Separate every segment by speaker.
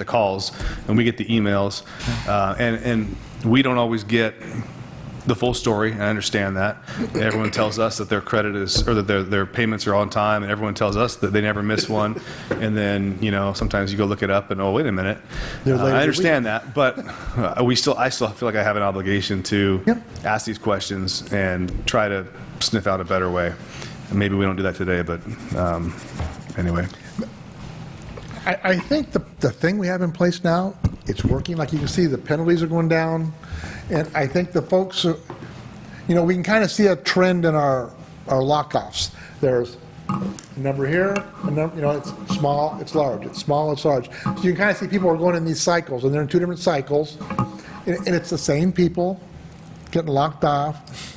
Speaker 1: the calls, and we get the emails, uh, and, and we don't always get the full story, and I understand that. Everyone tells us that their credit is, or that their, their payments are on time, and everyone tells us that they never miss one, and then, you know, sometimes you go look it up and, oh, wait a minute.
Speaker 2: They're
Speaker 1: Uh,
Speaker 2: later
Speaker 1: I
Speaker 2: than we-
Speaker 1: understand that, but uh, we still, I still feel like I have an obligation to
Speaker 2: Yep.
Speaker 1: ask these questions and try to sniff out a better way. And maybe we don't do that today, but um, anyway.
Speaker 2: I, I think the, the thing we have in place now, it's working. Like you can see, the penalties are going down. And I think the folks, are- you know, we can kind of see a trend in our, our lockoffs. There's a number here, a number, you know, it's small, it's large, it's small, it's large. So you can kind of see people are going in these cycles, and they're in two different cycles. And, and it's the same people getting locked off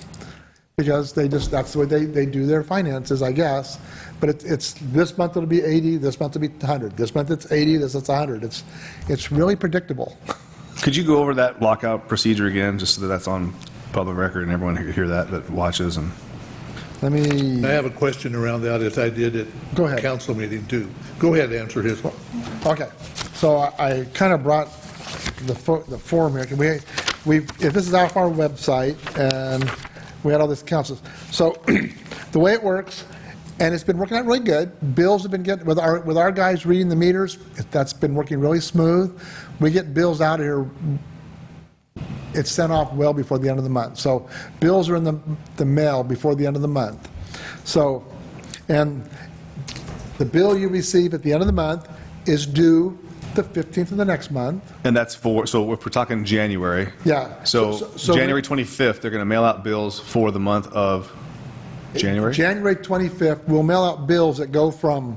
Speaker 2: because they just, that's the way they, they do their finances, I guess. But it's, it's, this month it'll be 80, this month it'll be 100, this month it's 80, this it's 100. It's, it's really predictable.
Speaker 1: Could you go over that lockout procedure again, just so that that's on public record and everyone can hear that, that watches and?
Speaker 2: Let me,
Speaker 3: I have a question around that, as I did at
Speaker 2: Go ahead.
Speaker 3: council meeting, too. Go ahead, answer his one.
Speaker 2: okay, so I- I kind of brought the, fo- the form here. Can We, we, if this is off our website, and we had all this council. So the way it works, and it's been working out really good, bills have been getting, with our, with our guys reading the meters, that's been working really smooth. We get bills out here it's sent off well before the end of the month. So bills are in the, the mail before the end of the month. So, and the bill you receive at the end of the month is due the 15th of the next month.
Speaker 1: And that's for, so if we're talking January.
Speaker 2: Yeah.
Speaker 1: So
Speaker 2: So- so-
Speaker 1: January 25th, they're going to mail out bills for the month of January?
Speaker 2: January 25th, we'll mail out bills that go from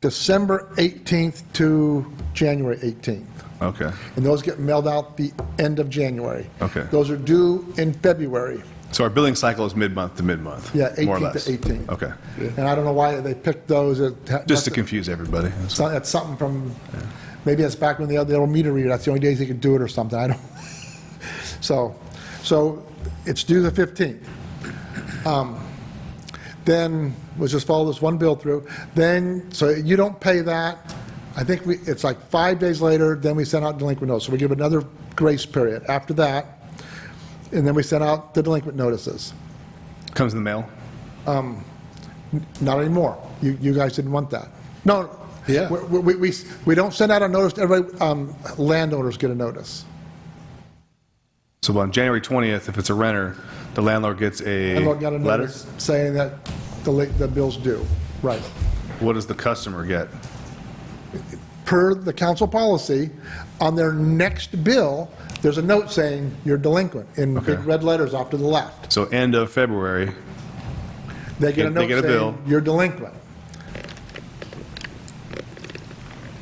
Speaker 2: December 18th to January 18th.
Speaker 1: Okay.
Speaker 2: And those get mailed out the end of January.
Speaker 1: Okay.
Speaker 2: Those are due in February.
Speaker 1: So our billing cycle is mid-month to mid-month?
Speaker 2: Yeah,
Speaker 1: more or
Speaker 2: 18th to
Speaker 1: less.
Speaker 2: 18th.
Speaker 1: Okay.
Speaker 2: And I don't know why they picked those. It-
Speaker 1: Just to confuse everybody. that's-
Speaker 2: So that's something from, maybe that's back when they had the old meter reader, that's the only days they could do it or something, I don't. So, so it's due the 15th. Um, Then, let's just follow this one bill through, then, so you don't pay that, I think we, it's like five days later, then we send out delinquent notice, so we give another grace period after that, and then we send out the delinquent notices.
Speaker 1: Comes in the mail?
Speaker 2: Not anymore. You, you guys didn't want that. No.
Speaker 3: Yeah.
Speaker 2: We- We, we, we don't send out a notice, to everybody, um, landowners get a notice.
Speaker 1: So on January 20th, if it's a renter, the landlord gets a
Speaker 2: Landlord got a
Speaker 1: letter?
Speaker 2: notice saying that the, la- the bill's due. Right.
Speaker 1: What does the customer get?
Speaker 2: Per the council policy, on their next bill, there's a note saying you're delinquent in big
Speaker 1: Okay.
Speaker 2: red letters off to the left.
Speaker 1: So end of February,
Speaker 2: They get a
Speaker 1: They
Speaker 2: note
Speaker 1: get a bill.
Speaker 2: saying you're delinquent.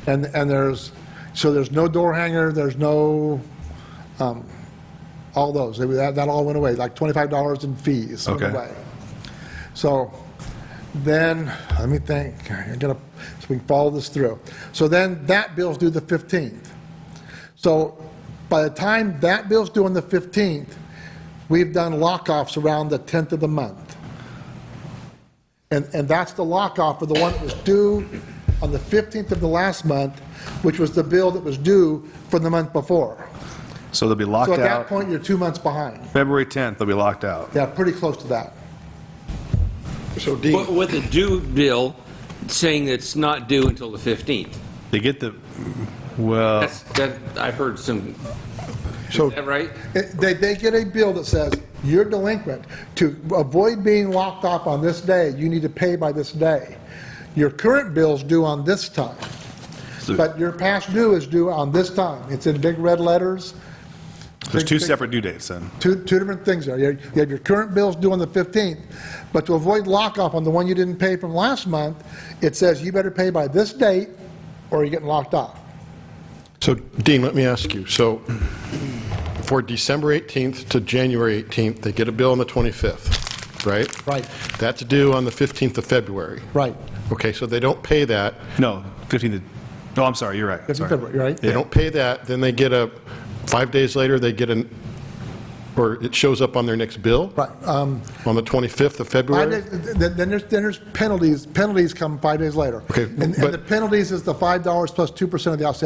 Speaker 2: And, and there's, so there's no door hanger, there's no all those, They- that, that all went away, like $25 in fees went
Speaker 1: Okay.
Speaker 2: away. So then, let me think, I'm gonna, so we can follow this through. So then that bill's due the 15th. So by the time that bill's due on the 15th, we've done lockoffs around the 10th of the month. And, and that's the lockoff for the one that was due on the 15th of the last month, which was the bill that was due from the month before.
Speaker 1: so they'll be
Speaker 2: So at
Speaker 1: locked
Speaker 2: that
Speaker 1: out.
Speaker 2: point, you're two months behind.
Speaker 1: February 10th, they'll be locked out.
Speaker 2: Yeah, pretty close to that.
Speaker 3: So Dean,
Speaker 4: But With a due bill saying it's not due until the 15th.
Speaker 1: They get the, well.
Speaker 4: That's, that, I've heard some,
Speaker 3: so
Speaker 4: is that right?
Speaker 2: It- They, they get a bill that says, you're delinquent. To avoid being locked off on this day, you need to pay by this day. Your current bill's due on this time, but your past due is due on this time. It's in big red letters,
Speaker 1: There's two
Speaker 2: Think- think-
Speaker 1: separate due dates then.
Speaker 2: two, two different things there. You you have your current bill's due on the 15th, but to avoid lockoff on the one you didn't pay from last month, it says you better pay by this date or you're getting locked off.
Speaker 5: So Dean, let me ask you, so for December 18th to January 18th, they get a bill on the 25th, right?
Speaker 2: Right.
Speaker 5: That's due on the 15th of February.
Speaker 2: Right.
Speaker 5: Okay, so they don't pay that,
Speaker 1: No, 15th, no, I'm sorry, you're right.
Speaker 2: That's in
Speaker 1: sorry.
Speaker 2: February, right?
Speaker 5: they don't pay that, then they get a, five days later, they get an, or it shows up on their next bill?
Speaker 2: Right, um,
Speaker 5: On the 25th of
Speaker 2: Five
Speaker 5: February?
Speaker 2: days, then then there's, then there's penalties, penalties come five days later.
Speaker 5: Okay,
Speaker 2: And and
Speaker 5: but-
Speaker 2: the penalties is the $5 plus 2% of the outstanding